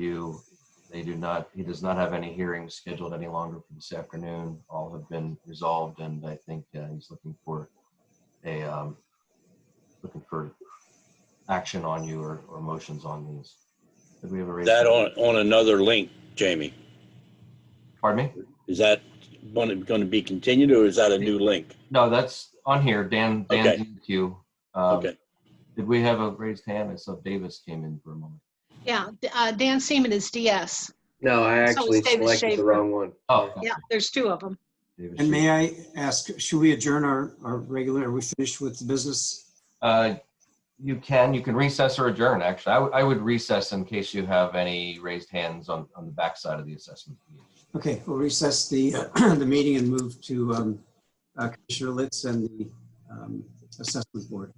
review. They do not, he does not have any hearings scheduled any longer for this afternoon. All have been resolved and I think uh, he's looking for a, um, looking for action on you or, or motions on these. Did we have a? raise That hand? on, on another link, Jamie? Pardon me? Is that going to be continued or is that a new link? No, that's on here. Dan, Okay. Dan's in the queue. Um, Okay. Did we have a raised hand? I saw Davis came in for a moment. Yeah, D- uh, Dan Seaman is DS. No, I So actually it's David selected Schaefer. the wrong one. Oh. Yeah, there's two of them. Davis. And may I ask, should we adjourn our, our regular, are we finished with the business? Uh, You can, you can recess or adjourn, actually. I would- I would recess in case you have any raised hands on, on the backside of the assessment. Okay, we'll recess the, the meeting and move to um, uh, Commissioner Litz and the um, Assessment Board.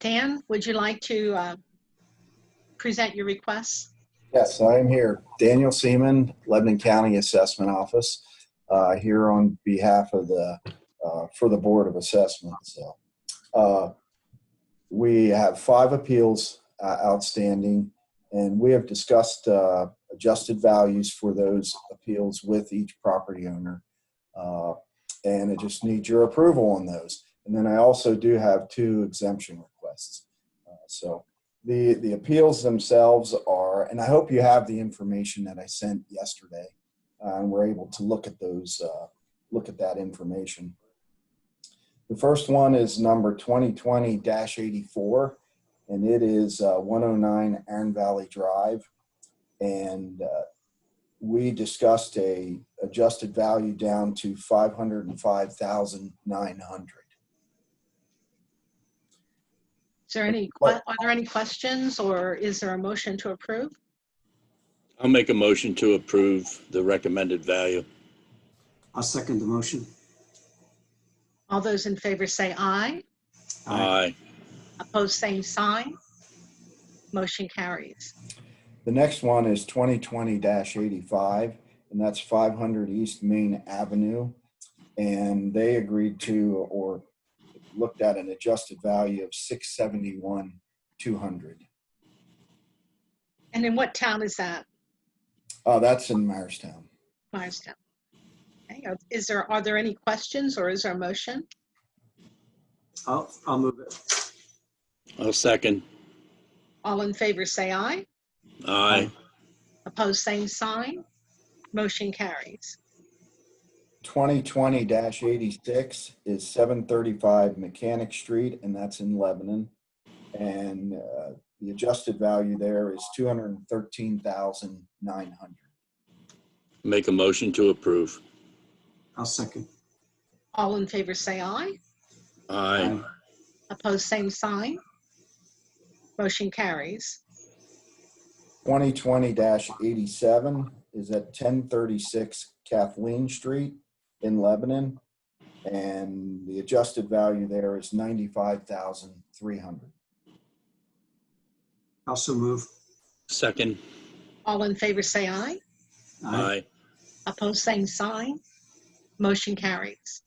Dan, would you like to uh, present your requests? Yes, I am here. Daniel Seaman, Lebanon County Assessment Office, uh, here on behalf of the, uh, for the Board of Assessment. So, uh, we have five appeals uh, outstanding, and we have discussed uh, adjusted values for those appeals with each property owner. Uh, And I just need your approval on those. And then I also do have two exemption requests. Uh, So, the the appeals themselves are and i hope you have the information that i sent yesterday uh, and we're able to look at those uh, look at that information the first one is number 2020-84 and it is uh, 109 Iron Valley Drive and uh, we discussed a adjusted value down to 505,900 Is there any, que- are there any questions or is there a motion to approve? I'll make a motion to approve the recommended value. I'll second the motion. All those in favor say aye. Aye. Opposed, same sign. Motion carries. The next one is 2020-85, and that's 500 East Main Avenue. And they agreed to or looked at an adjusted value of 671, 200. And in what town is that? Oh, that's in Myerstown. Myerstown. Okay, are- Is there, are there any questions or is there a motion? I'll, I'll move it. I'll second. All in favor say aye. Aye. Opposed, same sign. Motion carries. 2020-86 is 735 Mechanic Street, and that's in Lebanon. And uh, the adjusted value there is 213,900. Make a motion to approve. I'll second. All in favor say aye. Aye. Opposed, same sign. Motion carries. 2020-87 is at 1036 Kathleen Street in Lebanon. And the adjusted value there is 95,300. Also move. Second. All in favor say aye. Aye. Opposed, same sign. Motion carries.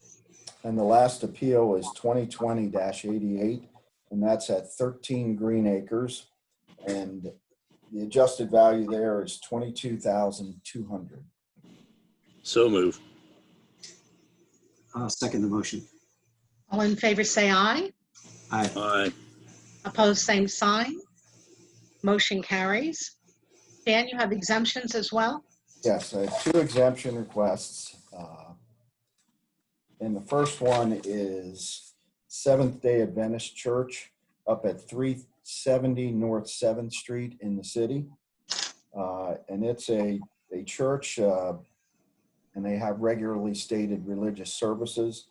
And the last appeal is 2020-88, and that's at 13 Green Acres. And the adjusted value there is 22,200. So move. I'll second the motion. All in favor say aye. Aye. Aye. Opposed, same sign. Motion carries. Dan, you have exemptions as well? Yes, I have two exemption requests. uh, And the first one is Seventh Day Adventist Church up at 370 North 7th Street in the city. Uh, And it's a, a church, uh, and they have regularly stated religious services.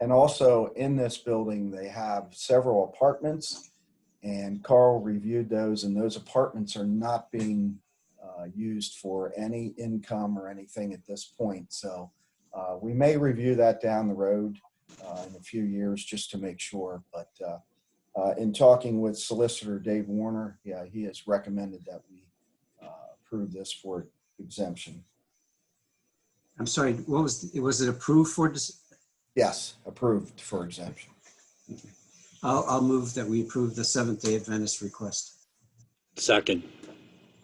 And also in this building, they have several apartments. And Carl reviewed those, and those apartments are not being uh, used for any income or anything at this point. So uh, we may review that down the road uh, in a few years just to make sure. But uh, uh, in talking with solicitor Dave Warner, yeah, he has recommended that we uh, approve this for exemption. I'm sorry, what was, was it approved for, dis- Yes, approved for exemption. I'll, I'll move that we approve the Seventh Day Adventist request. Second.